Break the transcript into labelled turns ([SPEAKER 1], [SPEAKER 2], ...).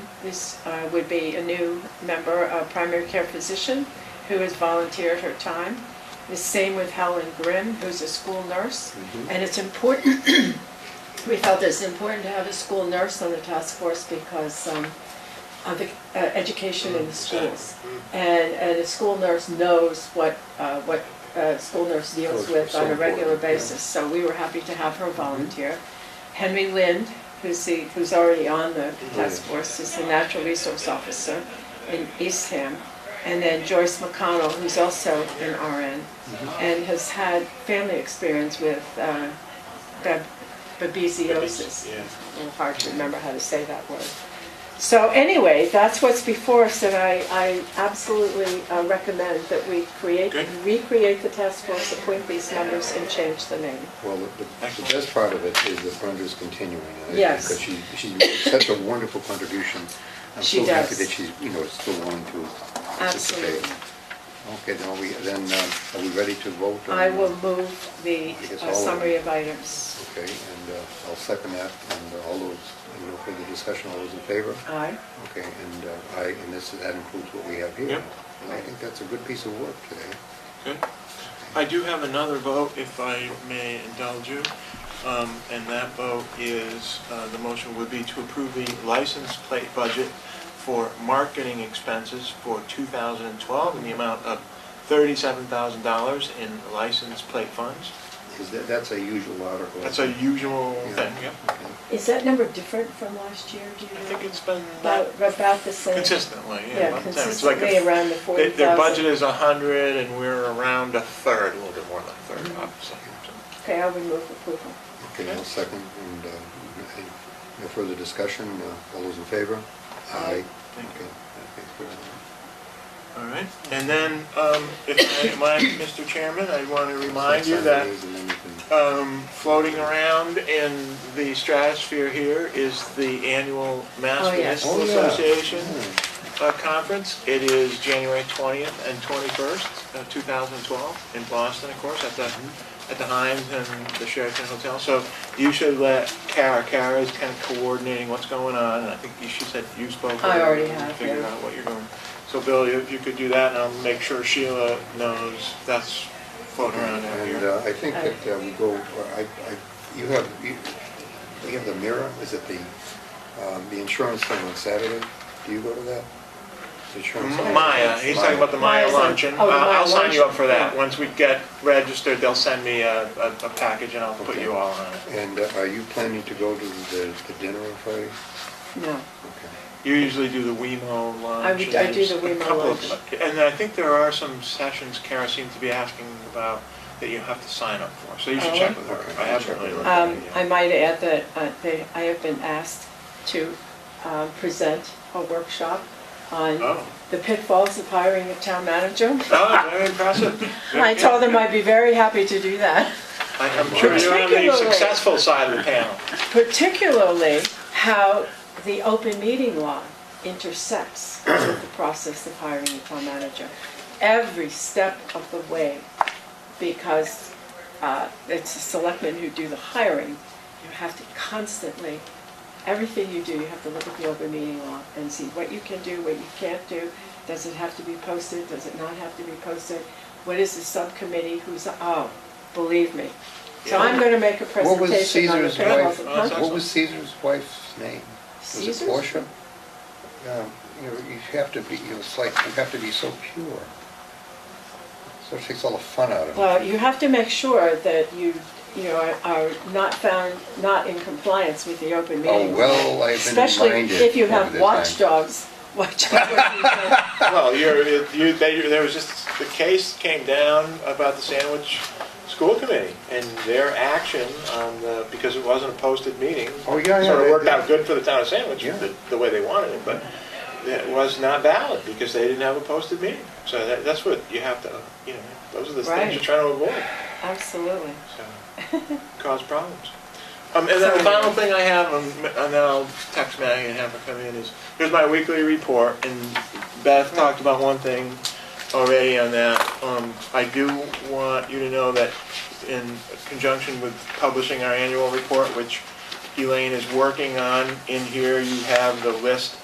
[SPEAKER 1] This uh, would be a new member, a primary care physician, who has volunteered her time. The same with Helen Grimm, who's a school nurse.
[SPEAKER 2] Mm-hmm.
[SPEAKER 1] And it's important, we felt it's important to have a school nurse on the task force because um, of the uh, education
[SPEAKER 2] Mm-hmm.
[SPEAKER 1] in the schools. And, and a school nurse knows what, uh, what a school nurse deals
[SPEAKER 2] Course,
[SPEAKER 1] with
[SPEAKER 2] so
[SPEAKER 1] on a regular
[SPEAKER 2] important, yeah. Mm-hmm.
[SPEAKER 1] basis. So we were happy to have her volunteer. Henry Lind, who's the, who's already on
[SPEAKER 3] Oh,
[SPEAKER 1] the task force, is the natural resource officer in Eastham. And then Joyce McConnell, who's also an RN
[SPEAKER 3] Mm-hmm.
[SPEAKER 1] and has had family experience with uh, bab- babesiosis.
[SPEAKER 3] Yeah.
[SPEAKER 1] And hard to remember how to say that word. So anyway, that's what's before us, and I, I absolutely uh, recommend that we create,
[SPEAKER 3] Good.
[SPEAKER 1] recreate the task force, appoint these members, and change the name.
[SPEAKER 2] Well, the, the the best part of it is that Brenda's continuing. I think,
[SPEAKER 1] Yes.
[SPEAKER 2] Because she, she makes such a wonderful contribution. I'm
[SPEAKER 1] She
[SPEAKER 2] so happy
[SPEAKER 1] does.
[SPEAKER 2] that she's, you know, still willing to participate.
[SPEAKER 1] Absolutely.
[SPEAKER 2] Okay, then are we, then, um, are we ready to vote? on-
[SPEAKER 1] I will move the
[SPEAKER 2] I guess
[SPEAKER 1] uh,
[SPEAKER 2] all of them.
[SPEAKER 1] summary of items.
[SPEAKER 2] Okay, and uh, I'll second that, and uh, all those, you know, for the discussion, all those in favor?
[SPEAKER 1] Aye.
[SPEAKER 2] Okay, and uh, I, and this, that includes what we have here.
[SPEAKER 3] Yep.
[SPEAKER 2] And I think that's a good piece of work today.
[SPEAKER 3] Good. I do have another vote, if I may indulge you. Um, And that vote is, uh, the motion would be to approve the license plate budget for marketing expenses for 2012 in the amount of $37,000 in license plate funds.
[SPEAKER 2] Is that, that's a usual article.
[SPEAKER 3] That's a usual
[SPEAKER 2] Yeah.
[SPEAKER 3] thing, yeah.
[SPEAKER 2] Okay.
[SPEAKER 1] Is that number different from last year, do you
[SPEAKER 3] I
[SPEAKER 1] know?
[SPEAKER 3] think it's been
[SPEAKER 1] About, about the same?
[SPEAKER 3] consistently, yeah.
[SPEAKER 1] Yeah,
[SPEAKER 3] about the time. It's like a-
[SPEAKER 1] consistently around the
[SPEAKER 3] they-
[SPEAKER 1] 40,000.
[SPEAKER 3] Their budget is 100 and we're around a third, a little bit more than a third,
[SPEAKER 1] Mm-hmm.
[SPEAKER 3] obviously. So-
[SPEAKER 1] Okay, I would move approval.
[SPEAKER 2] Okay, I'll second, and uh, any- no further discussion, Uh, all those in favor?
[SPEAKER 1] Aye.
[SPEAKER 3] Thank you.
[SPEAKER 2] Okay, okay.
[SPEAKER 3] All right, and then, um, if I might, Mr. Chairman, I want to remind you that,
[SPEAKER 2] And then we can-
[SPEAKER 3] um, floating around in the stratosphere here is the annual Mass
[SPEAKER 1] Oh, yes.
[SPEAKER 3] Municipal
[SPEAKER 2] Oh, yeah.
[SPEAKER 3] Association
[SPEAKER 2] Hmm.
[SPEAKER 3] uh, Conference. It is January twentieth and twenty-first, uh, two thousand twelve, in Boston, of course, at the,
[SPEAKER 2] Mm-hmm.
[SPEAKER 3] at the Hines and the Sheraton Hotel. So you should let Kara, Kara is kind of coordinating what's going on, and I think you- she said you spoke. with
[SPEAKER 1] I
[SPEAKER 3] her
[SPEAKER 1] already
[SPEAKER 3] and
[SPEAKER 1] have,
[SPEAKER 3] Figured
[SPEAKER 1] yeah.
[SPEAKER 3] out what you're doing. So Bill, if you could do that, and I'll make sure Sheila knows that's floating around out
[SPEAKER 2] And
[SPEAKER 3] here.
[SPEAKER 2] uh, I think that uh, we go, I, I, you have, you we have the mirror, is it the, um, the insurance thing on Saturday? Do you go to that? The insurance thing?
[SPEAKER 3] Maya, he's talking about the Maya
[SPEAKER 1] Maya's on-
[SPEAKER 3] luncheon.
[SPEAKER 1] oh, the
[SPEAKER 3] I'll-
[SPEAKER 1] Maya
[SPEAKER 3] I'll sign you up for that.
[SPEAKER 1] luncheon.
[SPEAKER 3] Once we get registered, they'll send me a, a a package and I'll put
[SPEAKER 2] Okay.
[SPEAKER 3] you all on it.
[SPEAKER 2] And uh, are you planning to go to the the dinner on Friday?
[SPEAKER 1] No.
[SPEAKER 2] Okay.
[SPEAKER 3] You usually do the WeMo lunch.
[SPEAKER 1] I would- I do the
[SPEAKER 3] and there's a
[SPEAKER 1] WeMo
[SPEAKER 3] couple of-
[SPEAKER 1] lunch.
[SPEAKER 3] And I think there are some sessions Kara seems to be asking about that you have to sign up for, so you should
[SPEAKER 1] Oh.
[SPEAKER 3] check with her.
[SPEAKER 2] Okay,
[SPEAKER 3] I
[SPEAKER 2] I'll check
[SPEAKER 3] haven't really
[SPEAKER 2] with
[SPEAKER 3] looked
[SPEAKER 2] her.
[SPEAKER 3] at it
[SPEAKER 1] Um,
[SPEAKER 3] yet.
[SPEAKER 1] I might add that uh, they- I have been asked to um, present a workshop on
[SPEAKER 3] Oh,
[SPEAKER 1] the pitfalls of hiring a town manager.
[SPEAKER 3] oh, very impressive.
[SPEAKER 1] I told them I'd be very happy to do that,
[SPEAKER 3] I- I'm sure you're on the
[SPEAKER 1] Particularly-
[SPEAKER 3] successful side of the panel.
[SPEAKER 1] particularly how the open meeting law intersects with the process of hiring a town manager. Every step of the way, because uh, it's the selectmen who do the hiring, you have to constantly everything you do, you have to look at the open meeting law and see what you can do, what you can't do. Does it have to be posted? Does it not have to be posted? What is the subcommittee? Who's, oh, believe me. So I'm gonna make a
[SPEAKER 2] What was
[SPEAKER 1] presentation on the
[SPEAKER 2] Uh, Caesar's
[SPEAKER 1] parallels
[SPEAKER 2] wife,
[SPEAKER 1] of
[SPEAKER 3] Well,
[SPEAKER 1] huh?
[SPEAKER 2] what was Caesar's wife's name? Was it
[SPEAKER 1] Caesar's?
[SPEAKER 2] Portia? Um, You know, you have to be, you know, it's like, you have to be so pure. So it takes all the fun out of it.
[SPEAKER 1] Well, you have to make sure that you, you know, are- are not found, not in compliance with the open
[SPEAKER 2] Oh,
[SPEAKER 1] meeting. law.
[SPEAKER 2] well, I've been
[SPEAKER 1] Especially
[SPEAKER 2] reminded.
[SPEAKER 1] if you
[SPEAKER 2] over
[SPEAKER 1] have
[SPEAKER 2] the time.
[SPEAKER 1] watchdogs, watch out what you say.
[SPEAKER 3] Well, you're, you, they, there was just, the case came down about the sandwich school committee and their action on the, because it wasn't a posted meeting.
[SPEAKER 2] Oh, yeah, yeah,
[SPEAKER 3] Sort
[SPEAKER 2] they-
[SPEAKER 3] of worked out good for the town of Sandwich,
[SPEAKER 2] Yeah.
[SPEAKER 3] the, the way they wanted it, but it was not valid because they didn't have a posted meeting. So that, that's what you have to, you know, those are the
[SPEAKER 1] Right.
[SPEAKER 3] things you're trying to avoid,
[SPEAKER 1] Absolutely.
[SPEAKER 3] so, cause problems. Um, and then the final thing I have, um, and then I'll text Maggie and have her come in, is, here's my weekly report, and Beth talked about one thing already on that. Um, I do want you to know that in conjunction with publishing our annual report, which Elaine is working on, in here you have the list